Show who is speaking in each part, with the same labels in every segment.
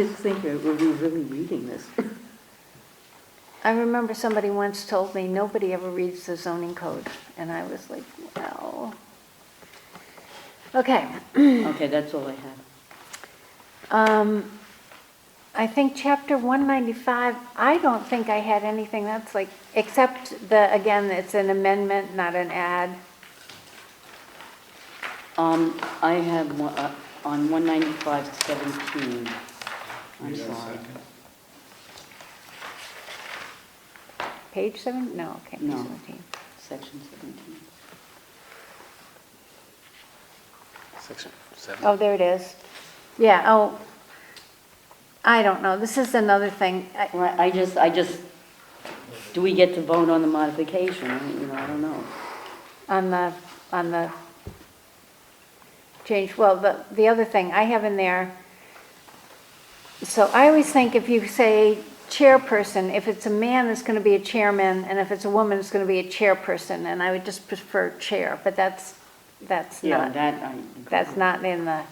Speaker 1: Didn't think, that- were we really reading this?
Speaker 2: I remember somebody once told me, nobody ever reads the zoning code, and I was like, well. Okay,
Speaker 1: Okay, that's all I have.
Speaker 2: um, I think chapter one ninety-five, I don't think I had anything that's like, except the, again, it's an amendment, not an add.
Speaker 1: Um, I have one, uh, on one ninety-five seventeen. I'm
Speaker 3: Read that
Speaker 1: sorry.
Speaker 3: second.
Speaker 2: Page seven, no, okay, page
Speaker 1: No.
Speaker 2: seventeen.
Speaker 1: Section seventeen.
Speaker 4: Section seven.
Speaker 2: Oh, there it is. Yeah, oh, I don't know, this is another thing, I-
Speaker 1: Right, I just, I just, do we get to vote on the modification? I mean, you know, I don't know.
Speaker 2: on the, on the uh, change, well, the, the other thing I have in there, so I always think if you say chairperson, if it's a man, it's gonna be a chairman, and if it's a woman, it's gonna be a chairperson, and I would just prefer chair, but that's, that's
Speaker 1: Yeah,
Speaker 2: not,
Speaker 1: that, I. agree.
Speaker 2: that's not in the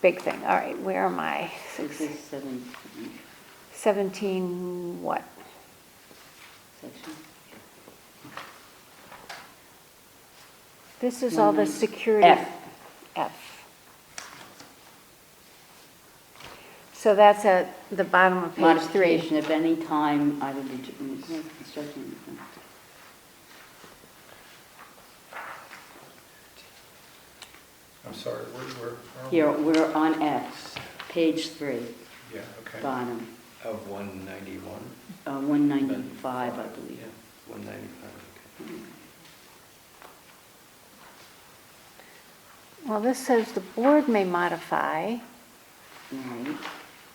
Speaker 2: big thing, all right, where am I?
Speaker 1: This is seventeen,
Speaker 2: Seventeen, what?
Speaker 1: section.
Speaker 2: This is all the
Speaker 1: Mhm.
Speaker 2: security.
Speaker 1: F.
Speaker 2: F. So that's at the bottom of page three.
Speaker 1: Modification of any time, I would be, mm, construction.
Speaker 3: I'm sorry, where, where? where are we?
Speaker 1: Here, we're on F, page three,
Speaker 3: Yeah, okay.
Speaker 1: bottom,
Speaker 4: Of one ninety-one?
Speaker 1: uh, one ninety-five, I believe.
Speaker 4: One ninety-five,
Speaker 2: Well, this says the board may modify.
Speaker 1: Right,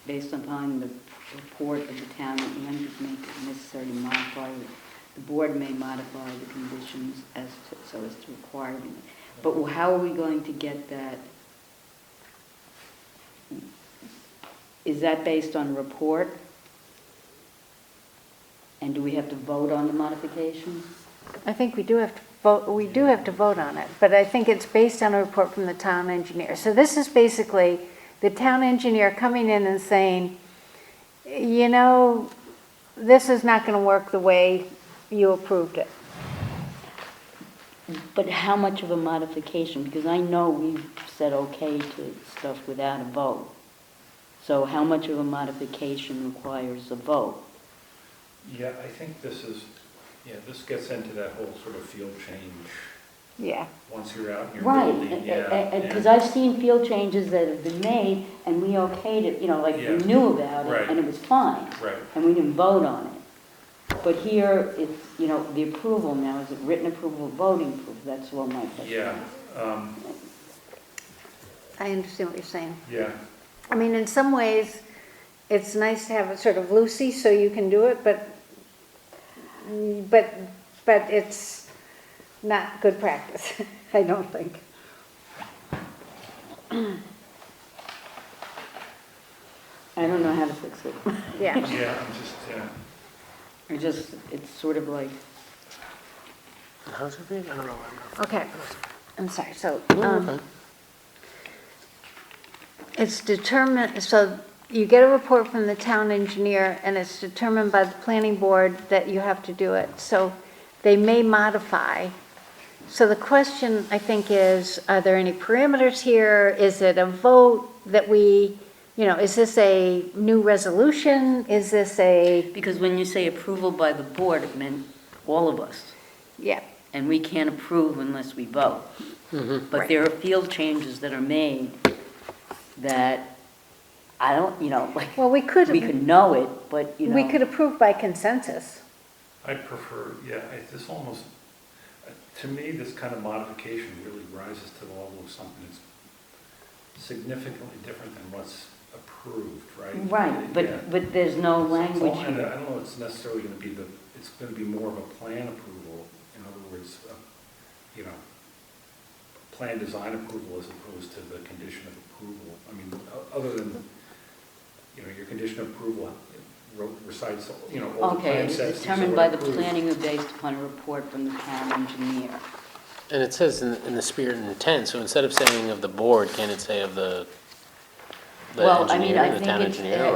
Speaker 1: based upon the report of the town that Andrews make it necessary to modify, the board may modify the conditions as, to- so as to require them. But how are we going to get that? Is that based on report? And do we have to vote on the modification?
Speaker 2: I think we do have to vote, we do have to vote on it, but I think it's based on a report from the town engineer. So this is basically the town engineer coming in and saying, you know, this is not going to work the way you approved it.
Speaker 1: But how much of a modification? Because I know we've said okay to stuff without a vote. So how much of a modification requires a vote?
Speaker 3: Yeah, I think this is, yeah, this gets into that whole sort of field change,
Speaker 2: Yeah.
Speaker 3: once you're out in your
Speaker 1: Right,
Speaker 3: building, yeah.
Speaker 1: because
Speaker 3: and-
Speaker 1: I've seen field changes that have been made, and we okayed it, you know, like we
Speaker 3: Yeah.
Speaker 1: knew about it,
Speaker 3: Right.
Speaker 1: and it was fine.
Speaker 3: Right.
Speaker 1: And we didn't vote on it. But here, it's, you know, the approval now, is it written approval, voting approval? That's all my question.
Speaker 3: Yeah, um,
Speaker 2: I understand what you're saying.
Speaker 3: yeah,
Speaker 2: I mean, in some ways, it's nice to have it sort of loosey so you can do it, but, but, but it's not good practice, I don't think.
Speaker 1: I don't know how to fix it.
Speaker 2: Yeah.
Speaker 3: yeah, I'm just, yeah.
Speaker 1: I just, it's sort of like,
Speaker 4: okay. How's it read? I don't know.
Speaker 2: Okay, I'm sorry, so,
Speaker 4: I'm
Speaker 2: um,
Speaker 4: not-
Speaker 2: it's determined, so you get a report from the town engineer, and it's determined by the planning board that you have to do it, so they may modify. So the question, I think, is, are there any parameters here? Is it a vote that we, you know, is this a new resolution? Is this a,
Speaker 1: Because when you say approval by the board, it meant all of us,
Speaker 2: yeah,
Speaker 1: and we can't approve unless we vote.
Speaker 3: Mm-hmm.
Speaker 1: But there are field changes that are made that I don't, you know, like,
Speaker 2: well, we could,
Speaker 1: we
Speaker 2: we
Speaker 1: could know it, but, you know.
Speaker 2: could approve by consensus.
Speaker 3: I prefer, yeah, I- this almost, uh, to me, this kind of modification really rises to the level of something that's significantly different than what's approved, right?
Speaker 1: Right,
Speaker 3: Yeah.
Speaker 1: but, but there's no
Speaker 3: It's
Speaker 1: language
Speaker 3: all- and
Speaker 1: here.
Speaker 3: I don't know, it's necessarily gonna be the, it's gonna be more of a plan approval, in other words, uh, you know, plan design approval as opposed to the condition of approval. I mean, o- other than, you know, your condition of approval wrote- recites, you know, all the
Speaker 1: Okay,
Speaker 3: plan
Speaker 1: it's
Speaker 3: sets.
Speaker 1: determined by the planning or based upon a report from the town engineer.
Speaker 5: And it says in, in the spirit and intent, so instead of saying of the board, can it say of the the engineer, the
Speaker 1: Well, I mean,
Speaker 5: town engineer,
Speaker 1: I think it's-